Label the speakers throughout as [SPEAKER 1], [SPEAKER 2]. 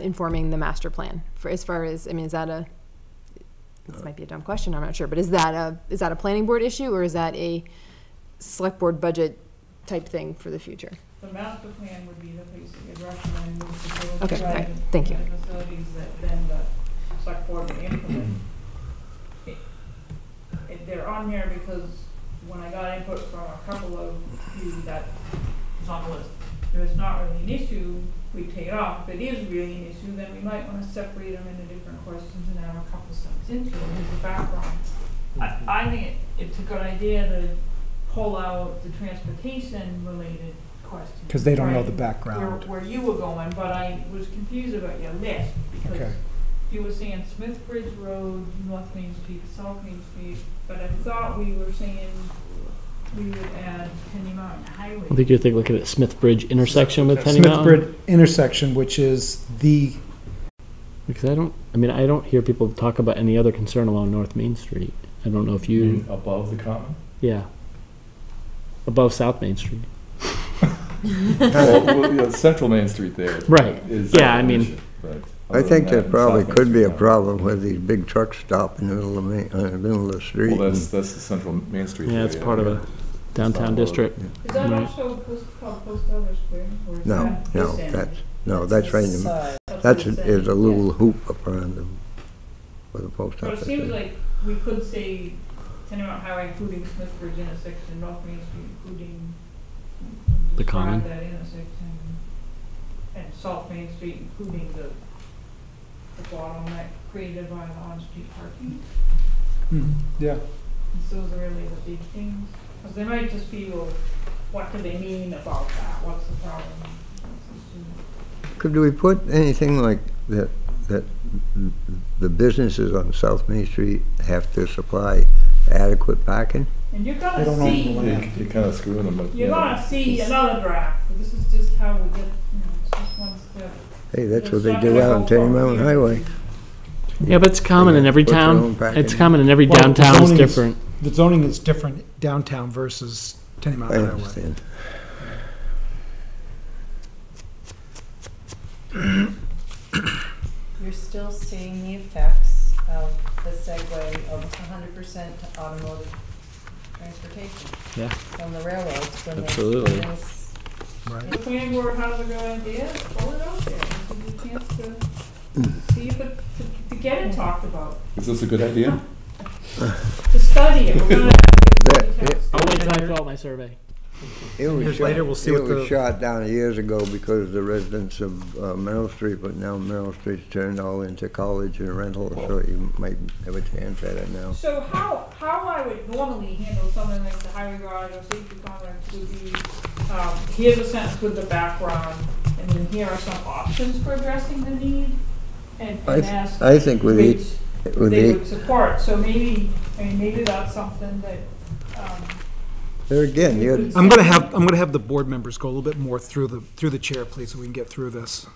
[SPEAKER 1] informing the master plan for as far as, I mean, is that a, this might be a dumb question, I'm not sure, but is that a, is that a planning board issue or is that a select board budget type thing for the future?
[SPEAKER 2] The master plan would be the place that you'd recommend with the facilities.
[SPEAKER 1] Okay, all right,
[SPEAKER 2] rather
[SPEAKER 1] thank you.
[SPEAKER 2] than the Facilities that then the select board would implement. It- it- They're on here because when I got input from a couple of you that it's on the list. If it's not really an issue, we take it off. If it is really an issue, then we might wanna separate them into different questions and have a couple steps into it as a background. I, I think it- it's a good idea to pull out the transportation related questions.
[SPEAKER 3] Because they don't know
[SPEAKER 2] right?
[SPEAKER 3] the background.
[SPEAKER 2] Where, where you were going, but I was confused about your list,
[SPEAKER 3] Okay.
[SPEAKER 2] because you were saying Smith Bridge Road, North Main Street, South Main Street, but I thought we were saying we would add Penny Mountain Highway.
[SPEAKER 4] I think you're thinking, looking at Smith Bridge intersection with Tenny
[SPEAKER 3] Smith
[SPEAKER 4] Mountain.
[SPEAKER 3] Bridge intersection, which is the,
[SPEAKER 4] Because I don't, I mean, I don't hear people talk about any other concern along North Main Street. I don't know if
[SPEAKER 3] Mm-hmm.
[SPEAKER 4] you,
[SPEAKER 5] Mm-hmm.
[SPEAKER 6] Above the common?
[SPEAKER 4] yeah. Above South Main Street.
[SPEAKER 6] Well, well, yeah, Central Main Street there.
[SPEAKER 4] Right.
[SPEAKER 6] is
[SPEAKER 4] Yeah, I
[SPEAKER 6] an
[SPEAKER 4] mean-
[SPEAKER 6] issue, but
[SPEAKER 5] I
[SPEAKER 6] other
[SPEAKER 5] think
[SPEAKER 6] than
[SPEAKER 5] that probably
[SPEAKER 6] South Main
[SPEAKER 5] could be a
[SPEAKER 6] Street,
[SPEAKER 5] problem where these big trucks stop in the middle of, ma- uh, middle of the
[SPEAKER 6] yeah.
[SPEAKER 5] street.
[SPEAKER 6] Well, that's, that's the Central Main Street.
[SPEAKER 4] Yeah, it's part of
[SPEAKER 6] it.
[SPEAKER 4] a downtown district.
[SPEAKER 2] Is that
[SPEAKER 4] Right.
[SPEAKER 2] also post, called Post Elder Square, or is
[SPEAKER 5] No,
[SPEAKER 2] that
[SPEAKER 5] no,
[SPEAKER 2] this end?
[SPEAKER 5] that's, no, that's right, in the-
[SPEAKER 2] That's
[SPEAKER 5] that's,
[SPEAKER 2] this
[SPEAKER 5] is
[SPEAKER 2] end.
[SPEAKER 5] a little hoop up around the, where the post
[SPEAKER 2] But it
[SPEAKER 5] office
[SPEAKER 2] seems
[SPEAKER 5] is.
[SPEAKER 2] like we could say Tenny Mountain Highway including Smith Bridge intersection, North Main Street including.
[SPEAKER 4] The
[SPEAKER 2] describe
[SPEAKER 4] common.
[SPEAKER 2] That intersection, and South Main Street including the, the bottleneck created by the on-street parking.
[SPEAKER 3] yeah,
[SPEAKER 2] And so those are really the big things, because they might just be, well, what do they mean about that, what's the problem? What's the issue?
[SPEAKER 5] Could we put anything like that, that the businesses on South Main Street have to supply adequate parking?
[SPEAKER 2] And you're
[SPEAKER 3] They
[SPEAKER 2] gonna
[SPEAKER 3] don't own the
[SPEAKER 2] see,
[SPEAKER 3] land.
[SPEAKER 6] You're kind of screwing them, but.
[SPEAKER 2] you're
[SPEAKER 6] you know,
[SPEAKER 2] gonna see
[SPEAKER 6] it's-
[SPEAKER 2] another draft, but this is just how we get, you know, it's just one step.
[SPEAKER 5] Hey, that's what
[SPEAKER 2] It's
[SPEAKER 5] they
[SPEAKER 2] not
[SPEAKER 5] do
[SPEAKER 2] gonna
[SPEAKER 5] out
[SPEAKER 2] go
[SPEAKER 5] on Tenny
[SPEAKER 2] forward.
[SPEAKER 5] Mountain Highway.
[SPEAKER 4] Yeah, but it's common in every
[SPEAKER 5] Put their
[SPEAKER 4] town.
[SPEAKER 5] own back
[SPEAKER 4] It's
[SPEAKER 5] in.
[SPEAKER 4] common in every
[SPEAKER 3] Well,
[SPEAKER 4] downtown. It's
[SPEAKER 3] zoning is-
[SPEAKER 4] different.
[SPEAKER 3] the zoning is different downtown versus Tenny
[SPEAKER 5] I
[SPEAKER 3] Mountain Highway.
[SPEAKER 5] understand.
[SPEAKER 7] You're still seeing the effects of the segue almost hundred percent to automotive transportation
[SPEAKER 4] Yeah.
[SPEAKER 7] from the railroads when they.
[SPEAKER 4] Absolutely.
[SPEAKER 7] when this-
[SPEAKER 3] Right.
[SPEAKER 2] The planning board has a good idea, pull it out there, give it a chance to see if it, to, to get it talked about,
[SPEAKER 6] Is this a good idea?
[SPEAKER 2] to study it, we're gonna have to
[SPEAKER 5] That-
[SPEAKER 2] get
[SPEAKER 4] I'll wait till I fill out my survey.
[SPEAKER 5] It was
[SPEAKER 3] Years
[SPEAKER 5] shot-
[SPEAKER 3] later, we'll see what
[SPEAKER 5] It
[SPEAKER 3] the-
[SPEAKER 5] was shot down years ago because the residents of uh, Merrill Street, but now Merrill Street's turned all into college and rental, so you might have a chance at it now.
[SPEAKER 2] So how, how I would normally handle something like the highway guard or safety complex would be, um, here's a sentence with the background, and then here are some options for addressing the need, and,
[SPEAKER 5] I
[SPEAKER 2] and
[SPEAKER 5] th-
[SPEAKER 2] ask
[SPEAKER 5] I think with
[SPEAKER 2] which
[SPEAKER 5] each, with
[SPEAKER 2] they
[SPEAKER 5] each,
[SPEAKER 2] would support, so maybe, I mean, maybe that's something that, um,
[SPEAKER 5] there again,
[SPEAKER 2] you
[SPEAKER 5] you're,
[SPEAKER 2] could
[SPEAKER 3] I'm
[SPEAKER 2] say-
[SPEAKER 3] gonna have, I'm gonna have the board members go a little bit more through the, through the chair, please, so we can get through this.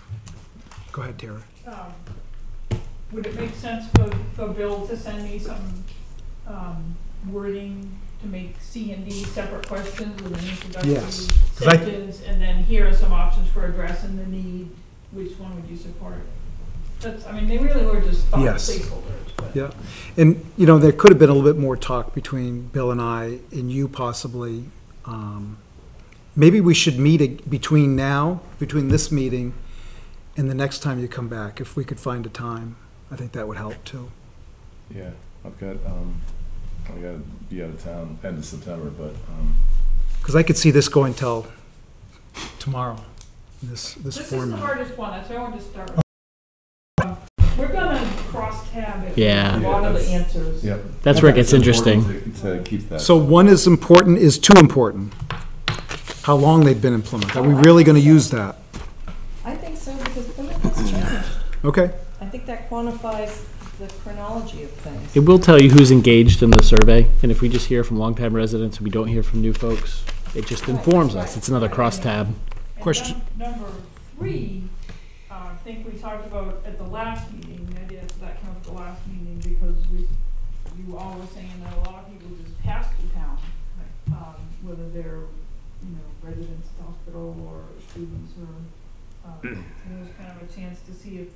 [SPEAKER 3] Go ahead, Tara.
[SPEAKER 2] um, would it make sense for, for Bill to send me some, um, wording to make C and D separate questions with an
[SPEAKER 3] Yes,
[SPEAKER 2] introductory
[SPEAKER 3] 'cause I-
[SPEAKER 2] sentence? And then here are some options for addressing the need, which one would you support? That's, I mean, they really were just thought
[SPEAKER 3] Yes.
[SPEAKER 2] placeholders, but.
[SPEAKER 3] Yeah, and, you know, there could have been a little bit more talk between Bill and I, and you possibly. Um, Maybe we should meet ag- between now, between this meeting and the next time you come back, if we could find a time. I think that would help, too.
[SPEAKER 6] Yeah, I've got, um, I gotta be out of town end of September, but, um,
[SPEAKER 3] Because I could see this going till tomorrow, this, this
[SPEAKER 2] This is the
[SPEAKER 3] format.
[SPEAKER 2] hardest one, that's why I wanted to start with. Um, We're gonna cross tab it.
[SPEAKER 4] Yeah.
[SPEAKER 2] A lot of the
[SPEAKER 6] Yeah,
[SPEAKER 2] answers.
[SPEAKER 6] yep.
[SPEAKER 4] That's where it gets
[SPEAKER 6] It's important
[SPEAKER 4] interesting.
[SPEAKER 6] To to keep that.
[SPEAKER 3] So one is important, is too important. How long they've been implemented. Are we really going to use that?
[SPEAKER 7] I think so because Plymouth has changed.
[SPEAKER 3] Okay,
[SPEAKER 7] I think that quantifies the chronology of
[SPEAKER 4] It
[SPEAKER 7] things.
[SPEAKER 4] will tell you who's engaged in the survey, and if we just hear from longtime residents and we don't hear from new folks, it just informs us. It's another crosstab.
[SPEAKER 2] And
[SPEAKER 3] Question-
[SPEAKER 2] num- Number three, uh, I think we talked about at the last meeting, the idea that that came up at the last meeting because we, you all were saying that a lot of people just pass through town. Um, whether they're, you know, uh, residents, at the hospital or students or, um, it was kind of a chance to see if